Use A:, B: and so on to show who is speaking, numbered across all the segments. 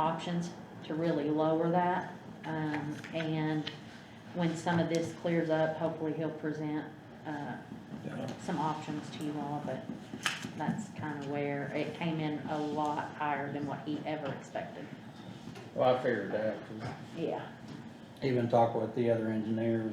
A: options to really lower that. Um, and when some of this clears up, hopefully he'll present, uh,
B: Yeah.
A: some options to you all, but that's kind of where it came in a lot higher than what he ever expected.
C: Well, I figured that, 'cause
A: Yeah,
B: Even talk with the other engineers,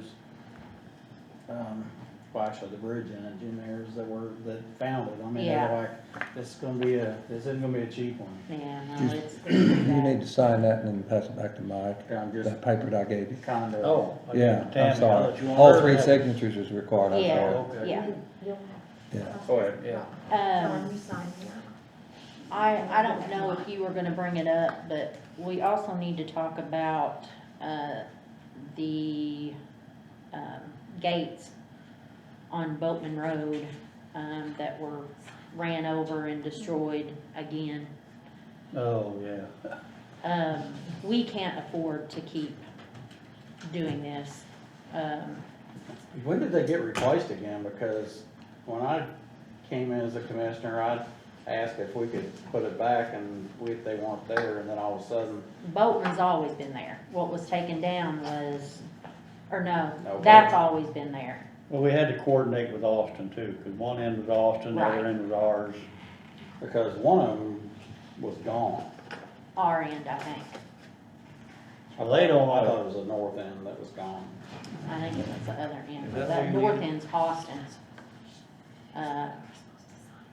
B: um, well, actually the bridge engineers that were, that found it. I mean, they're like, this is gonna be a, this isn't gonna be a cheap one.
A: yeah, no,
D: Just-
A: it's.
D: You need to sign that and then pass it back to Mike,
B: Okay, I'm just
D: that paper that I gave you.
B: kind of.
E: Oh. I
D: Yeah,
E: didn't-
D: I'm
E: Tammy, now that
D: sorry.
E: you want
D: All
E: her
D: three
E: to-
D: signatures is required, I'm sorry.
A: Yeah,
E: Okay.
A: yeah.
D: Yeah.
C: go ahead, yeah.
A: Um,
F: John, you sign here.
A: I, I don't know if you were gonna bring it up, but we also need to talk about, uh, the, um, gates on Boatman Road, um, that were ran over and destroyed again.
E: Oh, yeah.
A: Um, we can't afford to keep doing this. Um,
B: When did they get replaced again? Because when I came in as a commissioner, I asked if we could put it back and we, they weren't there and then all of a sudden,
A: Boatman's always been there. What was taken down was, or no,
B: No,
A: that's always been there.
E: Well, we had to coordinate with Austin too, because one end was Austin, the
A: Right.
E: other end was ours.
B: because one of them was gone.
A: Our end, I think.
E: Well, they don't
B: I
E: want
B: thought
E: to,
B: it was the north end that was gone.
A: I think it was the other end,
E: Is
A: but
E: that
A: that
E: who you-
A: north end's Austin's. Uh,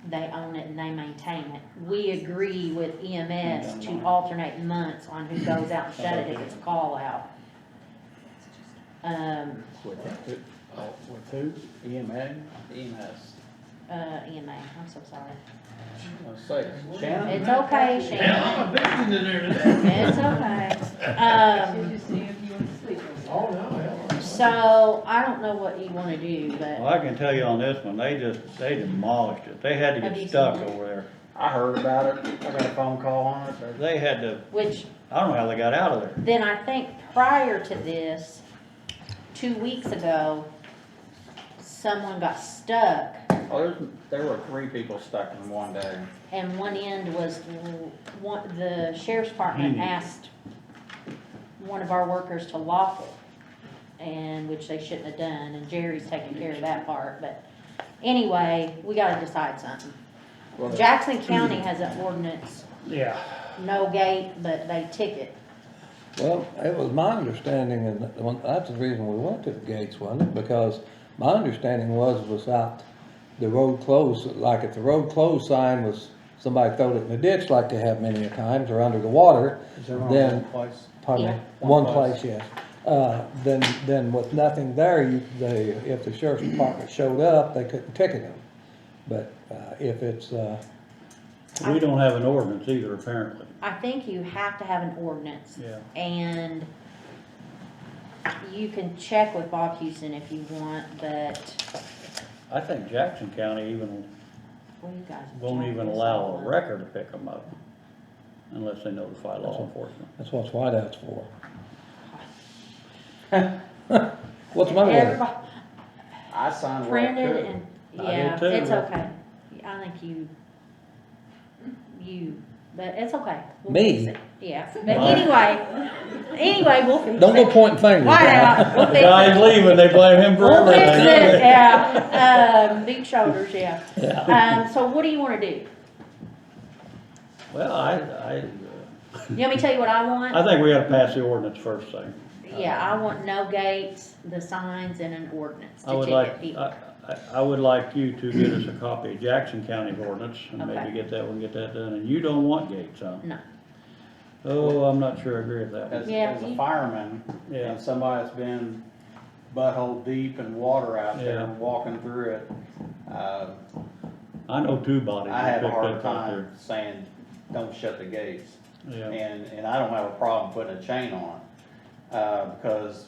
A: They own it and they maintain it. We agree with EMS to alternate months on who goes out and shut it if it's a call out. Um,
B: With who? Oh, With who? EMA? EMS.
A: uh, EMA, I'm so sorry.
B: I was saying, Shannon?
A: It's okay, Shannon,
C: I'm a victim in there today.
A: it's okay. Um,
C: Oh, no, hell.
A: so I don't know what you wanna do,
E: well,
A: but
E: I can tell you on this one, they just, they demolished it. They had to
A: Have you
E: get stuck
A: seen it?
E: over there.
B: I heard about it. I got a phone call on it. but-
E: They had to,
A: which
E: I don't know how they got out of there.
A: then I think prior to this, two weeks ago, someone got stuck
B: Oh, there's, there were three people stuck in one day.
A: and one end was, one, the sheriff's department
E: Hmm.
A: asked one of our workers to lock it, and, which they shouldn't have done, and Jerry's taking care of that part, but anyway, we gotta decide something.
B: Well,
A: Jackson County has an ordinance,
E: Yeah.
A: no gate, but they ticket.
D: Well, it was my understanding, and that- well, that's the reason we went to the gates, wasn't it? Because my understanding was, was out, the road closed, like if the road closed sign was, somebody throwed it in the ditch like they have many a times, or under the water, then,
B: Place.
D: pardon me,
A: Yeah.
D: one
B: One
D: place, yes. Uh, then, then with nothing there, you, they, if the sheriff's department showed up, they couldn't ticket them. But, uh, if it's, uh,
E: We don't have an ordinance either, apparently.
A: I think you have to have an ordinance.
E: Yeah.
A: And you can check with Bob Houston if you want, but
E: I think Jackson County even
A: well, you guys.
E: won't even allow a wrecker to pick them up unless they notify law enforcement.
D: that's what whiteout's for. What's my word?
A: Everybody
B: I signed where I
A: Printed
B: could.
A: and,
E: I did
A: yeah,
E: too,
A: it's
E: but-
A: okay. I think you, you, but it's okay. We'll
D: Me?
A: fix it. Yeah, but anyway, anyway, we'll fix it.
D: Don't go pointing fingers.
A: Whiteout, we'll
E: The
A: fix it.
E: guy's leaving, they blame him for
A: We'll fix it,
E: everything.
A: yeah. Um, big shoulders, yeah. Um, so what do you wanna do?
E: Well, I, I,
A: You want me to tell you what I want?
E: I think we gotta pass the ordinance first thing.
A: Yeah, I want no gates, the signs, and an ordinance
E: I
A: to
E: would
A: ticket
E: like,
A: people.
E: I, I, I would like you to get us a copy of Jackson County ordinance and
A: Okay.
E: maybe get that one, get that done. And you don't want gates, huh?
A: No.
E: Oh, I'm not sure I agree with that.
B: As,
A: Yeah,
B: as a
A: you-
B: fireman,
E: Yeah.
B: and somebody that's been butthole deep in water out there
E: Yeah.
B: and walking through it, uh,
E: I know two bodies.
B: I
E: that
B: have a
E: picked
B: hard
E: up out there.
B: time saying, don't shut the gates.
E: Yeah,
B: And, and I don't have a problem putting a chain on, it, uh, because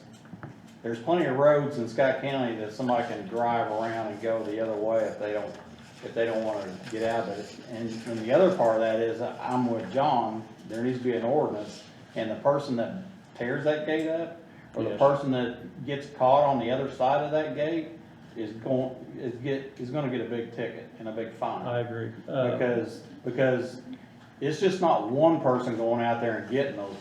B: there's plenty of roads in Scott County that somebody can drive around and go the other way if they don't, if they don't wanna get out of it. And, and the other part of that is, I'm with John, there needs to be an ordinance, and the person that tears that gate up, or the
E: Yes.
B: person that gets caught on the other side of that gate, is going, is get, is gonna get a big ticket and a big fine.
E: I agree. Uh,
B: Because, because it's just not one person going out there and getting those people.